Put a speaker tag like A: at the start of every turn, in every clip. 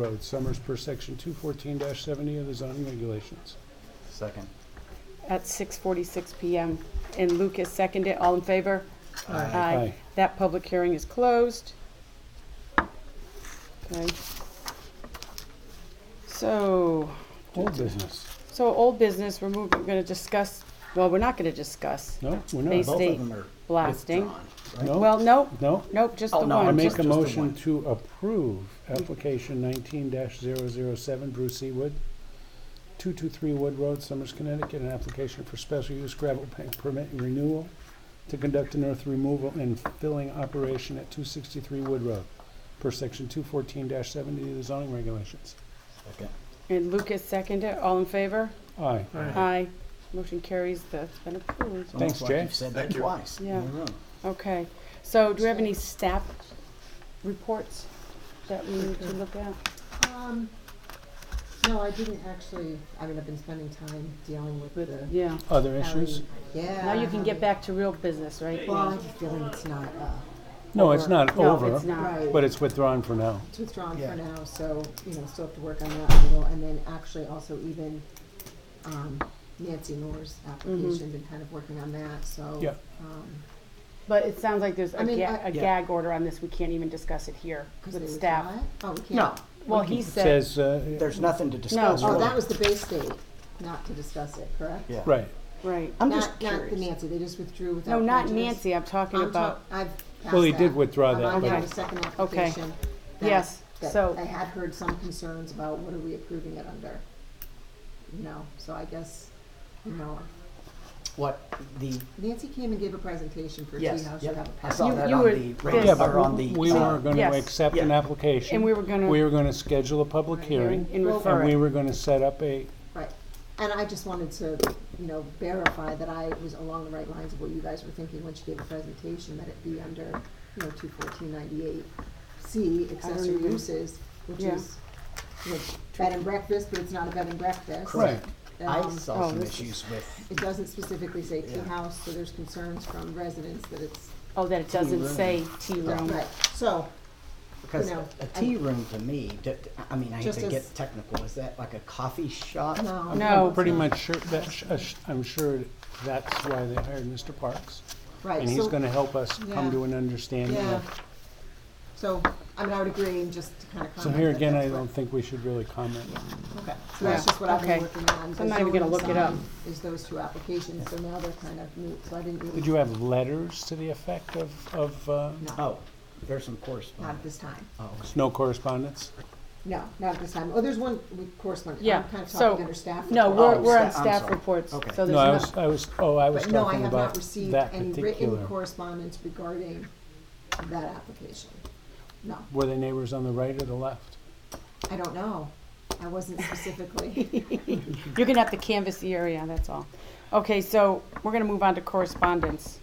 A: Road, Summers per section two fourteen seventy of the zoning regulations.
B: Second.
C: at 6:46 PM. And Lucas seconded, all in favor?
A: Aye.
C: That public hearing is closed. Okay. So,
A: Old business.
C: so old business, we're moving, we're gonna discuss, well, we're not gonna discuss
A: No, we're
C: They
A: not.
C: s-
B: Both
C: State
B: of them are
C: blasting.
B: withdrawn, right?
A: No?
C: Well, nope,
A: No?
C: nope, just the
B: Oh,
C: one.
B: no,
A: I
B: I'm
A: make
B: just-
A: a
B: just the
A: motion
B: one.
A: to approve application nineteen 7 Bruce Seawood, two two three Wood Road, Summers, Connecticut, an application for special use gravel bank permit renewal to conduct an earth removal and filling operation at two sixty-three Wood Road, per section two fourteen seventy of the zoning regulations.
B: Second.
C: And Lucas seconded, all in favor?
A: Aye.
C: Aye. Motion carries, that's been approved.
B: It's
A: Thanks,
B: almost like
A: Jay.
B: You've said that twice. in
C: Yeah.
B: a row.
C: Okay, so do we have any staff reports that we need to look at?
D: Um, no, I didn't actually, I mean, I've been spending time dealing with the.
C: Yeah.
A: Other
D: alley-
A: issues?
D: Yeah.
C: Now you can get
D: having-
C: back to real business, right?
D: Well, I have a feeling it's not, uh,
A: No, it's not
C: No,
A: over.
C: it's not.
D: right,
A: But it's withdrawn for now.
D: it's withdrawn
B: Yeah.
D: for now, so, you know, still have to work on that a little, and then actually also even, um, Nancy Moore's application, been kind of working on that, so.
A: Yeah.
D: um,
C: But it sounds like there's
D: I
C: a
D: mean,
C: ga-
D: I-
C: a
A: Yeah.
C: gag order on this, we can't even discuss it here
D: 'cause they
C: with
D: withdraw
C: staff.
D: it? Oh, we can't.
C: No, well, he
A: It
C: said,
A: Says, uh,
B: There's nothing to discuss.
D: Oh,
B: really.
D: that was the base date, not to discuss it, correct?
B: Yeah.
A: right,
C: right.
B: I'm just
D: Not, not the
B: curious.
D: Nancy, they just withdrew without
C: No, not
D: prejudice.
C: Nancy, I'm talking
D: I'm
C: about,
D: talk- I've passed
A: Well, he did
D: that.
A: withdraw
D: I'm
A: that,
D: on
C: but-
D: down to second
C: Okay.
D: application. that-
C: yes,
D: that
C: so,
D: I had heard some concerns about what are we approving it under? You know, so I guess, you know,
B: What, the,
D: Nancy came and gave a presentation for Tea
B: yes,
D: House, you
B: yep,
D: have a
B: I saw
C: You-
D: pass.
B: that
C: you
B: on
C: were
B: the,
C: pissed.
A: yeah,
B: radio-
A: but
B: or on the.
A: we
B: uh,
A: were gonna
C: Yes.
A: accept an
B: Yeah.
A: application.
C: and we were gonna.
A: We were gonna schedule a public
D: Right.
A: hearing,
C: And
D: Well,
C: refer
A: and we
C: it.
A: were gonna set up a,
D: Right, and I just wanted to, you know, verify that I was along the right lines of what you guys were thinking when she gave a presentation, that it be under, you know, two fourteen ninety-eight C accessory
C: even-
D: uses, which
C: Yeah.
D: is, you know, bed and breakfast, but it's not a bed and breakfast.
A: right,
B: I
D: Um,
B: saw
C: Oh,
B: some
C: this is-
B: issues with,
D: It doesn't specifically say tea
B: Yeah.
D: house, so there's concerns from residents that it's,
C: Oh, that it doesn't
B: room.
C: say tea room.
D: right, so,
B: because a
D: know,
B: a
D: I-
B: tea room to me, d- d- I mean, I hate
D: Just
B: to get
D: as-
B: technical, is that like a coffee shop?
D: no.
C: No.
A: pretty
D: it's not.
A: much sure, that, sh- uh, sh- I'm sure that's why they hired Mr. Parks.
D: Right,
A: And he's
D: so,
A: gonna help us come
D: Yeah.
A: to an understanding
D: yeah,
A: of,
D: so, I mean, I would agree, and just to kind of comment.
A: so here
D: that
A: again, I
D: that's what-
A: don't think we should really comment.
D: Okay, so that's
C: Yeah,
D: just what I've
C: okay.
D: been working on. The
C: I'm not even gonna
D: zoning
C: look it up.
D: sign Is those two applications, so now they're kind of moot, so I didn't
A: Did
D: really,
A: you have letters to the effect of, of, uh,
D: no,
B: Oh, there's some
D: not at
B: correspondence.
D: this time,
B: Oh,
A: no correspondence?
D: no, not at this time. Oh, there's one with correspondence,
C: Yeah,
D: I'm kind of
C: so-
D: talking under staff.
C: No,
D: report.
C: we're,
B: Oh,
C: we're on
B: sta- I'm
C: staff
B: sorry.
C: reports, so
B: Okay.
C: there's
A: No, I
C: no,
A: was, I was, oh, I was
D: But no, I
A: talking
D: have not
A: about
D: received
A: that
D: any written
A: particular.
D: correspondence regarding that application. No,
A: Were they neighbors on the right or the left?
D: I don't know. I wasn't specifically.
C: you're gonna have to canvass the area, that's all. Okay, so we're gonna move on to correspondence.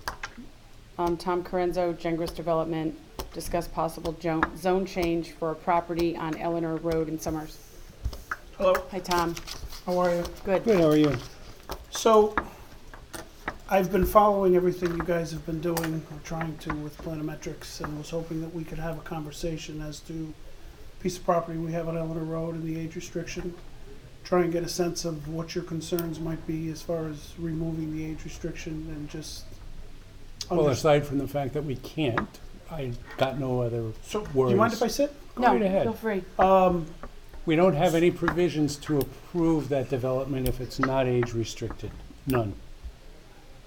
C: Um, Tom Corenzo, Gengris Development, discuss possible jo- zone change for a property on Eleanor Road in Summers.
E: Hello,
C: Hi, Tom.
E: how are you?
C: Good.
A: Good, how are you?
E: So, I've been following everything you guys have been doing, or trying to with Planometrics, and was hoping that we could have a conversation as to piece of property we have on Eleanor Road and the age restriction. Try and get a sense of what your concerns might be as far as removing the age restriction and just.
A: Well,
E: under-
A: aside from the fact that we can't, I got no other,
E: So, do
A: worries.
E: you mind if I sit?
A: Go
C: No,
A: right ahead.
C: feel free.
E: Um,
A: we don't have any provisions to approve that development if it's not age restricted, none.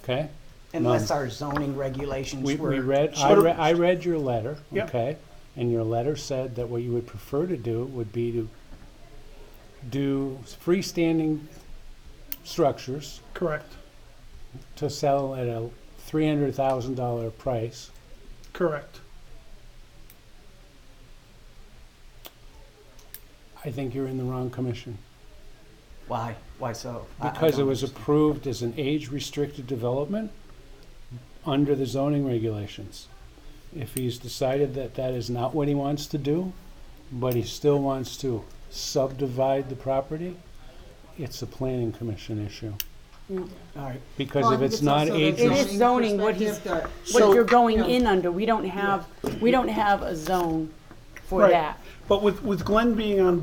A: Okay?
B: Unless our zoning regulations
A: Um, We,
B: were.
A: we read, I
E: Sure.
A: read, I read your letter,
E: Yep.
A: okay? And your letter said that what you would prefer to do would be to do freestanding structures
E: correct,
A: to sell at a three hundred thousand dollar price
E: correct.
A: I think you're in the wrong commission.
B: Why, why so? I- I
A: Because it
B: don't
A: was
B: understand.
A: approved as an age-restricted development under the zoning regulations. If he's decided that that is not what he wants to do, but he still wants to subdivide the property, it's a planning commission issue.
B: All right,
A: Because if it's not
C: It
A: age,
C: is zoning, what he's- What
E: So-
C: you're going
D: No.
C: in under, we don't have, we don't have a zone for
E: Right.
C: that.
E: But with, with Glenn being on